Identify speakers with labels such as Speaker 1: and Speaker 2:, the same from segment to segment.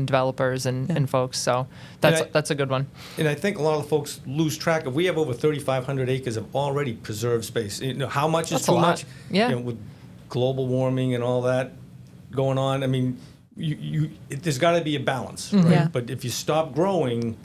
Speaker 1: and developers and,
Speaker 2: Yeah.
Speaker 1: and folks. So that's
Speaker 3: I-
Speaker 1: that's a good one.
Speaker 3: And I think a lot of folks lose track of, we have over 3,500 acres of already preserved space. You know, how much is
Speaker 1: That's a
Speaker 3: too
Speaker 1: lot.
Speaker 3: much?
Speaker 1: Yeah.
Speaker 3: You know, with global warming and all that going on, I mean, you, you, it, there's got to be a balance,
Speaker 1: Mm-hmm.
Speaker 3: right?
Speaker 2: Yeah.
Speaker 3: But if you stop growing,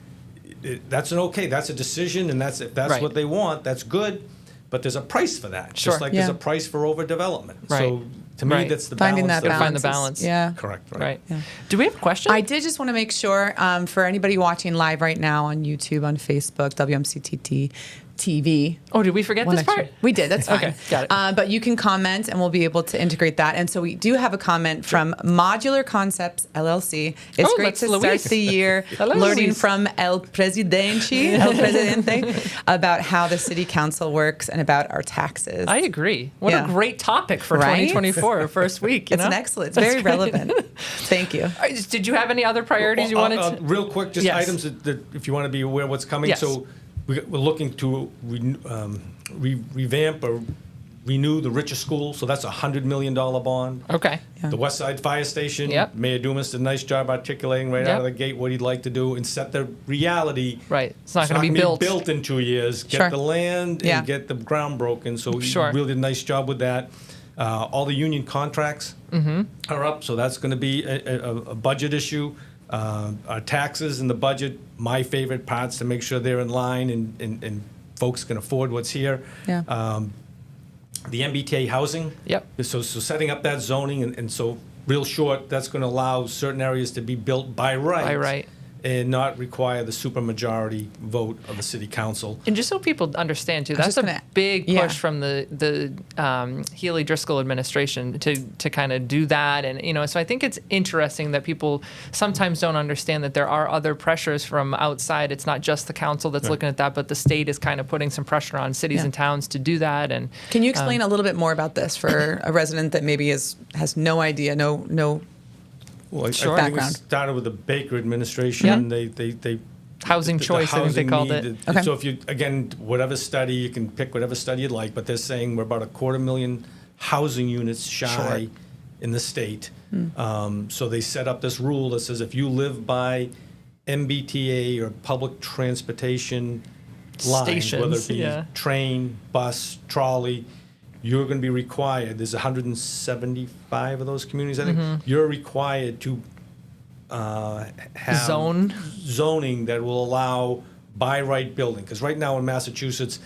Speaker 3: it, that's an okay, that's a decision, and that's, if that's
Speaker 1: Right.
Speaker 3: what they want, that's good, but there's a price for that.
Speaker 1: Sure.
Speaker 3: Just like
Speaker 2: Yeah.
Speaker 3: there's a price for overdevelopment.
Speaker 1: Right.
Speaker 3: So to me,
Speaker 1: Right.
Speaker 3: that's the
Speaker 2: Finding
Speaker 3: balance.
Speaker 2: that balance.
Speaker 1: find the
Speaker 2: is-
Speaker 1: balance.
Speaker 2: Yeah.
Speaker 3: Correct, right?
Speaker 1: Right.
Speaker 2: Yeah.
Speaker 1: Do we have a question?
Speaker 2: I did just want to make sure um, for anybody watching live right now on YouTube, on Facebook, WMCTT TV.
Speaker 1: oh, did we forget
Speaker 2: One
Speaker 1: this
Speaker 2: extra-
Speaker 1: part?
Speaker 2: We did. That's fine.
Speaker 1: Okay, got it.
Speaker 2: Uh, but you can comment, and we'll be able to integrate that. And so we do have a comment from Modular Concepts LLC. It's
Speaker 1: Oh,
Speaker 2: great
Speaker 1: that's
Speaker 2: to start
Speaker 1: Luis.
Speaker 2: the year
Speaker 1: Hello,
Speaker 2: learning
Speaker 1: Luis.
Speaker 2: from El Presidente, El Presidente, about how the city council works and about our taxes.
Speaker 1: I agree. What
Speaker 2: Yeah.
Speaker 1: a great topic for
Speaker 2: Right?
Speaker 1: 2024, our first week. You
Speaker 2: it's
Speaker 1: know?
Speaker 2: an excellent. It's
Speaker 1: That's
Speaker 2: very
Speaker 1: great.
Speaker 2: relevant. Thank you.
Speaker 1: All right, Did you have any other priorities you
Speaker 3: Well,
Speaker 1: wanted
Speaker 3: uh,
Speaker 1: to?
Speaker 3: uh, Real quick, just
Speaker 1: Yes.
Speaker 3: items that, that if you want to be aware of what's coming.
Speaker 1: Yes.
Speaker 3: So we- we're looking to re- um, re- revamp or renew the Richer School, so that's a $100 million bond.
Speaker 1: Okay.
Speaker 3: The West Side Fire Station.
Speaker 1: Yep.
Speaker 3: Mayor Dumas did a nice job articulating right
Speaker 1: Yep.
Speaker 3: out of the gate what he'd like to do and set the reality.
Speaker 1: Right. It's not gonna be
Speaker 3: gonna
Speaker 1: built.
Speaker 3: Built in two years.
Speaker 1: Sure.
Speaker 3: Get the land
Speaker 2: Yeah.
Speaker 3: and get the ground broken, so he
Speaker 1: Sure.
Speaker 3: really did a nice job with that. Uh, All the union contracts
Speaker 1: Mm-hmm.
Speaker 3: are up, so that's going to be a, a, a budget issue. Uh, our taxes and the budget, my favorite parts to make sure they're in line and, and, and folks can afford what's here.
Speaker 2: Yeah.
Speaker 3: Um, the MBTA housing.
Speaker 1: Yep.
Speaker 3: So, so setting up that zoning and, and so real short, that's going to allow certain areas to be built by right.
Speaker 1: By right.
Speaker 3: And not require the supermajority vote of the city council.
Speaker 1: And just so people understand too, that's
Speaker 2: just
Speaker 1: a
Speaker 2: gonna-
Speaker 1: big push
Speaker 2: yeah.
Speaker 1: from the the um, Healy Driscoll administration to to kind of do that, and you know, so I think it's interesting that people sometimes don't understand that there are other pressures from outside. It's not just the council that's looking at that, but the state is kind of putting some pressure on cities
Speaker 2: Yeah.
Speaker 1: and towns to do that. And
Speaker 2: Can you explain a little bit more about this for a resident that maybe is has no idea, no no
Speaker 3: Well, I-
Speaker 1: Sure.
Speaker 3: I think we
Speaker 2: Background.
Speaker 3: started with the Baker administration.
Speaker 1: Yep.
Speaker 3: They, they, they
Speaker 1: Housing choice, I think they called it.
Speaker 3: needed-
Speaker 2: Okay.
Speaker 3: So if you again, whatever study you can pick, whatever study you'd like, but they're saying we're about a quarter million housing units shy
Speaker 1: Sure. Hmm.
Speaker 3: in the state. Um, so they set up this rule that says if you live by MBTA or public transportation lines, whether
Speaker 1: Stations,
Speaker 3: it be
Speaker 1: yeah.
Speaker 3: train, bus, trolley. You're going to be required. There's 175 of those communities. I think
Speaker 1: Mm-hmm.
Speaker 3: you're required to uh, have
Speaker 1: Zone.
Speaker 3: zoning that will allow by right building. Because right now in Massachusetts,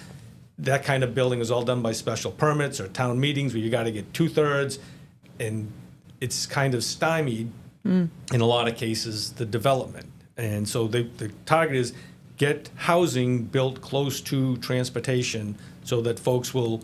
Speaker 3: that kind of building is all done by special permits or town meetings where you got to get two thirds, and it's kind of stymied in a lot of cases the development. And so the, the target is get housing built close to transportation so that folks will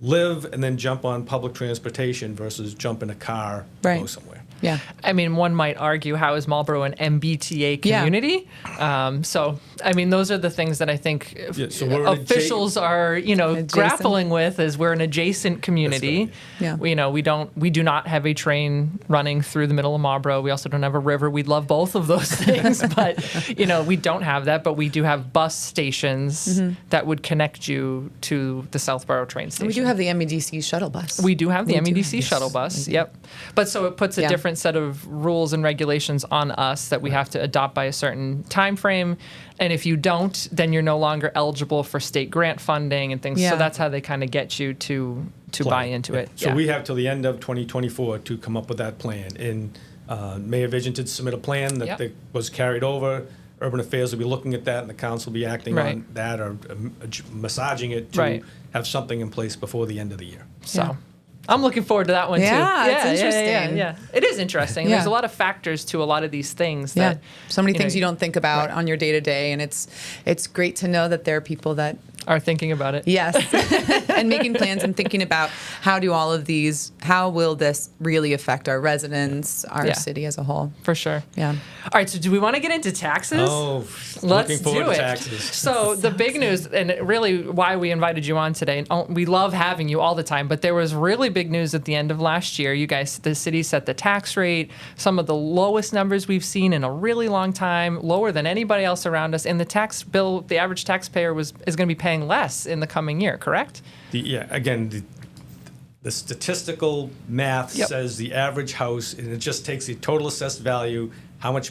Speaker 3: live and then jump on public transportation versus jump in a car and go
Speaker 2: Right.
Speaker 3: somewhere.
Speaker 2: yeah.
Speaker 1: I mean, one might argue, how is Marlboro an MBTA
Speaker 2: Yeah.
Speaker 1: community? Um, so, I mean, those are the things that I think uh,
Speaker 3: Yeah, so we're an adja-
Speaker 1: officials are, you know,
Speaker 2: Adjacent.
Speaker 1: grappling with. Is we're an adjacent community.
Speaker 2: Yeah.
Speaker 1: We- you know, we don't, we do not have a train running through the middle of Marlboro. We also don't have a river. We love both of those things, but you know, we don't have that. But we do have bus stations that would connect you to the Southborough train station.
Speaker 2: Mm-hmm. We do have the MEDC shuttle bus.
Speaker 1: We do have the
Speaker 2: We do
Speaker 1: MEDC
Speaker 2: have-
Speaker 1: shuttle
Speaker 2: yes,
Speaker 1: bus.
Speaker 2: we do.
Speaker 1: Yep. But so it puts a
Speaker 2: Yeah.
Speaker 1: different set of rules and regulations on us that we have to adopt by a certain time frame. And if you don't, then you're no longer eligible for state grant funding and things.
Speaker 2: Yeah.
Speaker 1: So that's how they kind of get you to to buy
Speaker 3: plan.
Speaker 1: into
Speaker 3: Yeah.
Speaker 1: it.
Speaker 3: So
Speaker 1: Yeah.
Speaker 3: we have till the end of 2024 to come up with that plan. And uh, Mayor Vision did submit a plan that
Speaker 1: Yep.
Speaker 3: that was carried over. Urban Affairs will be looking at that, and the council will be acting on
Speaker 1: Right.
Speaker 3: that or um, adj- massaging it to
Speaker 1: Right.
Speaker 3: have something in place before the end of the year.
Speaker 1: So
Speaker 2: Yeah.
Speaker 1: I'm looking forward to that one too.
Speaker 2: Yeah, it's
Speaker 1: Yeah,
Speaker 2: interesting.
Speaker 1: yeah. It is interesting.
Speaker 2: Yeah.
Speaker 1: There's a lot of factors to a lot of these things
Speaker 2: Yeah.
Speaker 1: that
Speaker 2: So many
Speaker 1: you know,
Speaker 2: things you don't think about on your day to day, and it's it's great to know that there are people that
Speaker 1: are thinking about it.
Speaker 2: yes, and making plans and thinking about how do all of these, how will this really affect our residents, our
Speaker 1: Yeah.
Speaker 2: city as a whole.
Speaker 1: For sure.
Speaker 2: Yeah.
Speaker 1: All right. So, do we want to get into taxes?
Speaker 3: Oh,
Speaker 1: Let's
Speaker 3: looking forward
Speaker 1: do
Speaker 3: to
Speaker 1: it.
Speaker 3: taxes.
Speaker 1: So the big news, and it really why we invited you on today, and oh, we love having you all the time. But there was really big news at the end of last year. You guys, the city set the tax rate, some of the lowest numbers we've seen in a really long time, lower than anybody else around us. And the tax bill, the average taxpayer was is going to be paying less in the coming year. Correct?
Speaker 3: The, yeah, again, the, the statistical math
Speaker 1: Yep.
Speaker 3: says the average house, and it just takes the total assessed value, how much